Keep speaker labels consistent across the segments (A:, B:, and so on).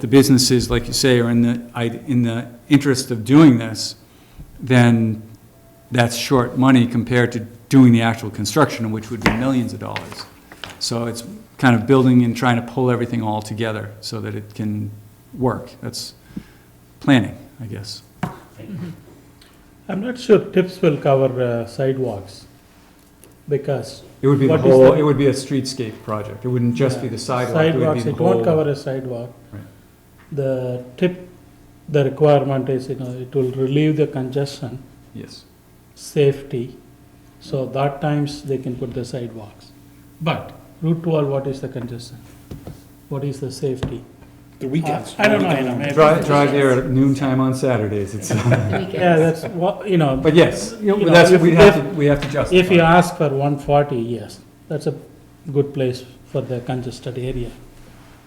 A: the businesses, like you say, are in the, I- in the interest of doing this, then that's short money compared to doing the actual construction, which would be millions of dollars. So it's kind of building and trying to pull everything all together so that it can work. That's planning, I guess.
B: I'm not sure tips will cover uh, sidewalks, because
A: It would be the
B: What is
A: whole,
B: the-
A: it would be a streetscape project. It wouldn't just be the sidewalk, it would be
B: sidewalks,
A: the
B: it won't
A: whole.
B: cover a sidewalk.
A: Right.
B: The tip, the requirement is, you know, it will relieve the congestion,
A: Yes,
B: safety, so that times they can put the sidewalks. But Route 12, what is the congestion? What is the safety?
C: The weekends.
B: I don't know, you know, maybe.
A: drive, drive there at noon time on Saturdays, it's,
B: Yeah, that's, what you know.
A: but yes,
B: You know,
A: that's,
B: if-
A: we have to, we have to justify.
B: If you
A: it.
B: ask for one forty, yes, that's a good place for the congested area.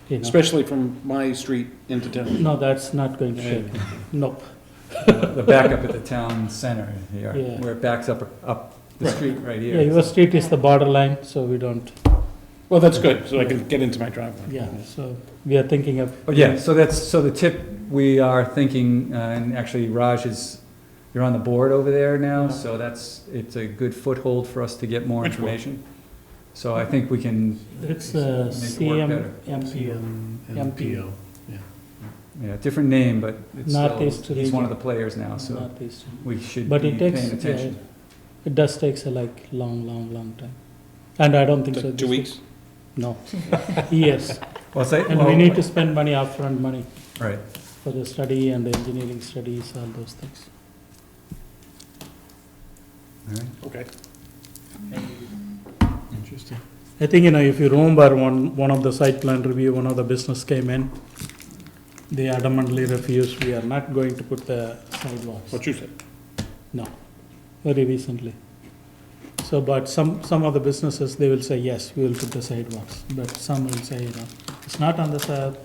B: You know,
C: Especially from my street into town.
B: no, that's not going to shake, nope.
A: the backup at the town center here,
B: Yeah.
A: where it backs up, up the
C: Right.
A: street right
B: Yeah,
A: here.
B: your street is the borderline, so we don't,
C: Well, that's good, so I can get into my driveway.
B: yeah, so we are thinking of.
A: But Oh, yeah, so that's, so the tip, we are thinking, uh, and actually Raj is, you're on the board over there now, so that's, it's a good foothold for us to get more
C: Which board?
A: information. So I think we can,
B: It's uh, a
A: Make it work better.
B: CM, MPO, MPO.
A: yeah, different name, but it's
B: Northeast
A: still, he's one of the
B: region.
A: players now, so
B: Northeast.
A: we should be
B: But
A: paying
B: it takes, yeah,
A: attention.
B: it does takes a like long, long, long time, and I don't think so.
C: Two
B: this
C: weeks?
B: is- No, years,
A: Well, say,
B: and we need to spend money, upfront money.
A: Right,
B: for the study and engineering studies, all those things.
A: all right,
C: Okay. Interesting.
B: I think, you know, if you remember, one, one of the site plan review, one of the business came in, they adamantly refused, we are not going to put the sidewalks,
C: What you said.
B: very recently. So, but some, some of the businesses, they will say, yes, we will put the sidewalks, but some will say, you know, it's not on the, si-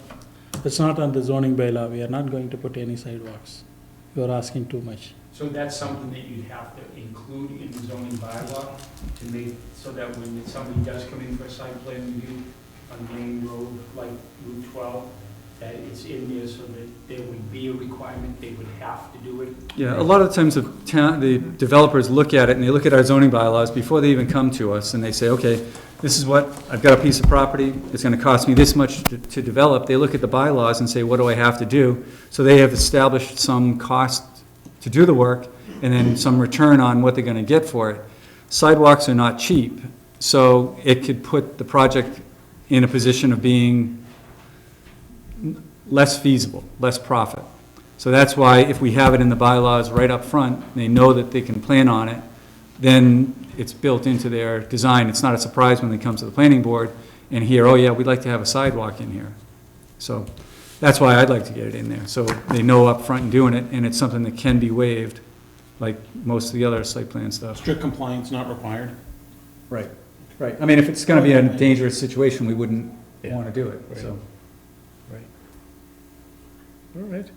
B: it's not on the zoning bylaw, we are not going to put any sidewalks. You are asking too much.
D: So that's something that you'd have to include in the zoning bylaw to make, so that when somebody does come in for a site plan review on main road, like Route 12, that it's in there so that there would be a requirement, they would have to do it.
A: Yeah, a lot of times the town, the developers look at it and they look at our zoning bylaws before they even come to us and they say, okay, this is what, I've got a piece of property, it's gonna cost me this much to- to develop. They look at the bylaws and say, what do I have to do? So they have established some cost to do the work and then some return on what they're gonna get for it. Sidewalks are not cheap, so it could put the project in a position of being less feasible, less profit. So that's why if we have it in the bylaws right up front, they know that they can plan on it, then it's built into their design. It's not a surprise when they come to the planning board and hear, oh yeah, we'd like to have a sidewalk in here. So that's why I'd like to get it in there, so they know up front and doing it, and it's something that can be waived, like most of the other site plan stuff.
C: Strict compliance not required.
A: Right, right. I mean, if it's gonna be a dangerous situation, we wouldn't wanna do it, so.
E: All right.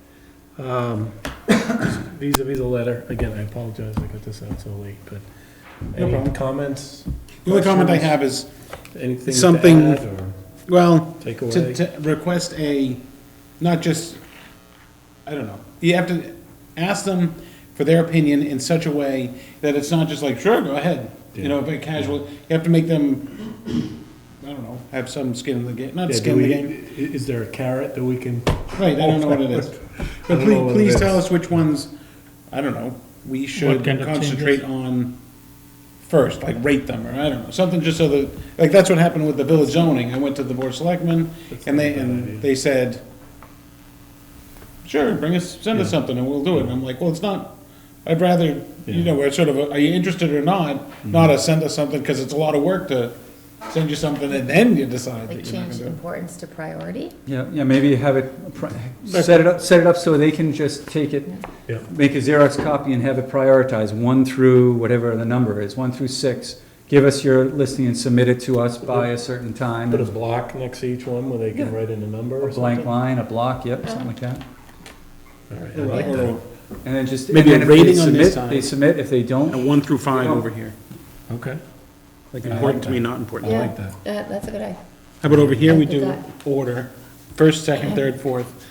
E: Um, Vis a vis the letter, again, I apologize, I got this out so late, but
C: No
E: any
C: problem.
E: comments?
C: The only comment I
E: Questions?
C: have is,
E: Anything
C: Something-
E: to add or
C: well,
E: take
C: to,
E: away?
C: to request a, not just, I don't know. You have to ask them for their opinion in such a way that it's not just like, sure, go ahead. You know, but casual, you have to make them, I don't know, have some skin in the game, not
E: Yeah, do
C: skin in the
E: we-
C: game.
E: i- Is there a carrot that we can,
C: Right, I don't know what it is. But
E: I don't know
C: please,
E: what
C: please
E: it
C: tell
E: is.
C: us which ones, I don't know, we should
B: kind of
C: concentrate on first, like rate them, or I don't know, something just so that, like, that's what happened with the village zoning. I went to the board of selectmen,
E: That's
C: and they,
E: not a bad idea.
C: and they said, sure, bring us, send us something, and we'll do it. And I'm like, well, it's not, I'd rather, you
E: Yeah. Mm-hmm.
C: know, we're sort of, a, are you interested or not? Not a send us something, because it's a lot of work to send you something, and then you decide
F: Like
C: that you're not
F: change
C: gonna do it.
F: importance to priority?
A: Yeah, yeah, maybe have it, pri- set it up, set it up so they can just take it,
E: Yeah.
A: make a Xerox copy and have it prioritized, one through whatever the number is, one through six. Give us your listing and submit it to us by a certain time.
E: put a block next to each one where they can
A: Yeah.
E: write in a number
A: A
E: or
A: blank
E: something?
A: line, a block, yep, something like that.
E: All right, I like that.
C: Or
A: And then just.
C: Maybe a
A: and then if they
C: rating on
A: submit,
C: this side.
A: They submit, if they
C: A
A: don't,
C: one through five
A: Oh.
C: over here.
E: Okay.
C: Important to me, not important.
F: Yeah.
E: like that.
F: Uh, That's a good idea.
C: How about over here, we
F: I did
C: do
F: that.
C: order, first, second, third, fourth.